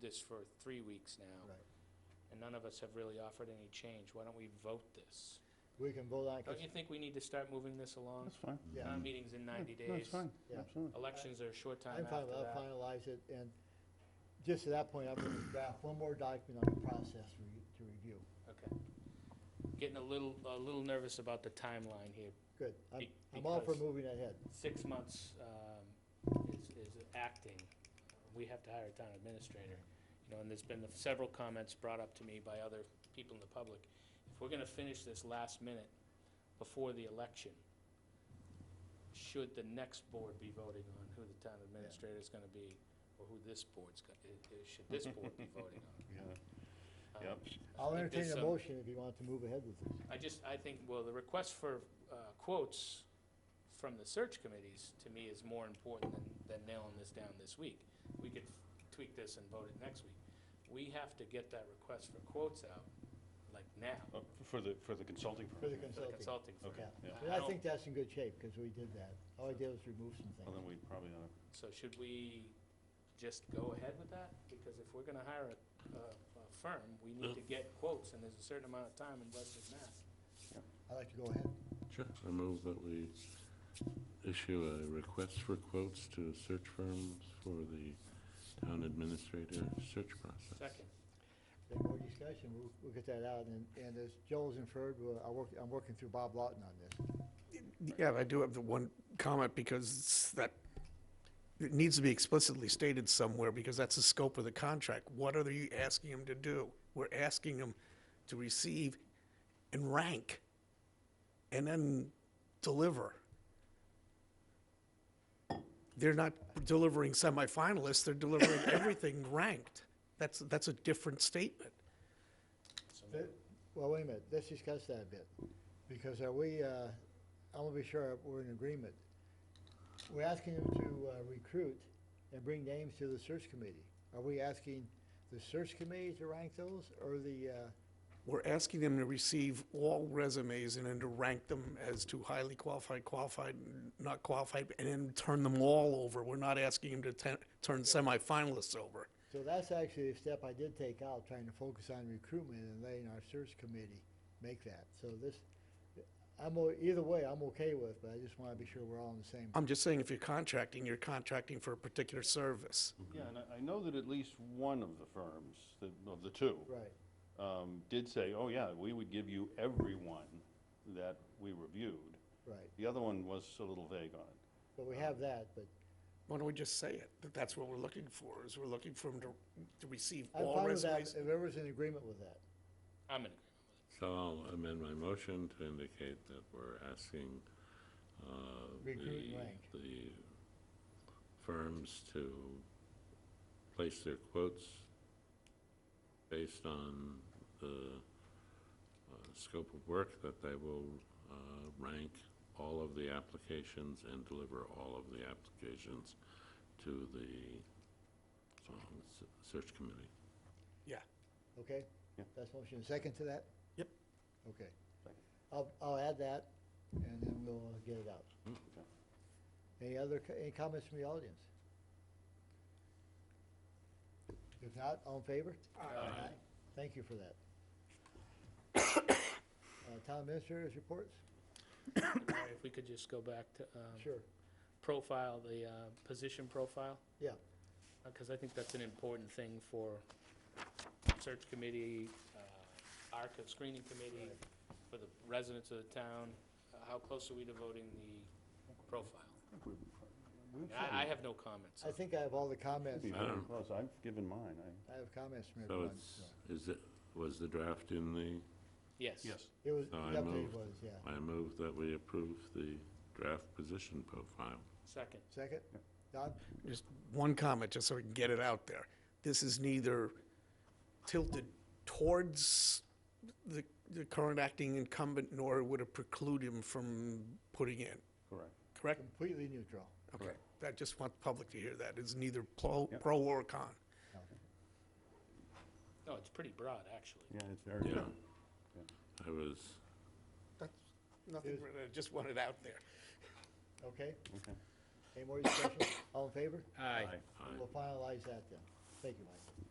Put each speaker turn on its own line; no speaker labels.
this for three weeks now,
Right.
and none of us have really offered any change. Why don't we vote this?
We can vote on, it 'cause-
Don't you think we need to start moving this along?
That's fine.
yeah,
Town meeting's in 90
No,
days.
it's fine,
Yeah.
absolutely.
Elections are a short time
I'm
after
fine, I'll
that.
finalize it, and just at that point, I'm gonna draft one more document on the process for you to review.
Okay. Getting a little, a little nervous about the timeline here.
Good, I'm,
Be-
I'm all for
because-
moving ahead.
Six months um, is is acting. We have to hire a town administrator. You know, and there's been several comments brought up to me by other people in the public. If we're going to finish this last minute before the election, should the next board be voting on who the town administrator is going to be or who this board's, go- i- i- should this board be voting
Yeah.
on?
Yep.
Um, I
I'll
think
entertain
there's
a
some-
motion if you want to move ahead with this.
I just, I think, well, the request for uh, quotes from the search committees, to me, is more important than, than nailing this down this week. We could tweak this and vote it next week. We have to get that request for quotes out, like now,
Uh, For the, for the consulting
For the
firm?
for the
consulting.
consulting firm.
Okay,
Yeah,
yeah.
and I think that's in good shape, because we did that. All I did was remove some
Well, then
things.
we probably ought
So should we just go ahead with that? Because if we're gonna hire a, a a firm, we need to get quotes, and there's a certain amount of time in Western Mass.
I'd like to go ahead.
Sure. I move that we issue a request for quotes to search firms for the town administrator search process.
Second,
Any more discussion, we'll, we'll get that out, and, and as Joel's inferred, we'll, I work, I'm working through Bob Lawton on this.
Yeah, I do have the one comment because it's that, it needs to be explicitly stated somewhere because that's the scope of the contract. What are you asking them to do? We're asking them to receive and rank and then deliver. They're not delivering semifinalists, they're delivering everything ranked. That's, that's a different statement.
Th- Well, wait a minute, let's discuss that a bit, because are we, uh, I want to be sure we're in agreement. We're asking them to uh, recruit and bring names to the search committee. Are we asking the search committee to rank those, or the, uh,
We're asking them to receive all resumes and then to rank them as to highly qualified, qualified, not qualified, and then turn them all over. We're not asking them to ten, turn semifinalists over.
so that's actually a step I did take out, trying to focus on recruitment and letting our search committee make that. So this, I'm, o- either way, I'm okay with, but I just want to be sure we're all on the same.
I'm just saying if you're contracting, you're contracting for a particular service.
Mm-hmm.
to. Yeah, and I, I know that at least one of the firms, the- of the two,
Right,
um, did say, oh, yeah, we would give you everyone that we reviewed.
right,
The other one was a little vague on it.
but we have that, but
Why don't we just say it? That that's what we're looking for, is we're looking for them to, to receive
I'm
all
fine with that,
resumes.
if everyone's in agreement with that.
I'm in agreement.
So I'll amend my motion to indicate that we're asking uh,
Recruit
the,
rank.
the firms to place their quotes based on the uh, scope of work, that they will uh, rank all of the applications and deliver all of the applications to the um, s- search committee.
Yeah,
Okay?
Yeah.
That's motion. Second to that?
Yep.
Okay.
Second.
I'll, I'll add that, and then we'll get it out.
Okay.
Any other, co- any comments from the audience? If not, all in favor? Aye. Thank you for that. Uh, Town administrators reports?
Larry, If we could just go back to, um,
Sure.
profile, the uh, position profile?
Yeah.
Because I think that's an important thing for search committee, uh, ARCA screening committee, for the residents of the town. Uh, How close are we to voting the profile?
We've said
I, I
it.
have no comments.
I think I have all the comments.
Be
I
very
don't-
close. I've given mine, I.
I have comments from
So
everyone.
it's, is it, was the draft in the,
Yes.
It was, the
so I
update
moved.
was, yeah.
I move that we approve the draft position profile.
Second.
Second? Don?
just one comment, just so we can get it out there. This is neither tilted towards the, the current acting incumbent, nor would it preclude him from putting in,
Correct.
correct?
Completely neutral.
Okay, I just want the public to hear that. It's neither pro, pro or con.
No, it's pretty broad, actually.
Yeah, it's very.
Yeah. I was,
That's nothing, I just want it out there.
Okay?
Okay.
Any more discussion? All in favor?
Aye.
Aye.
I,
We'll finalize that then. Thank you, Mike.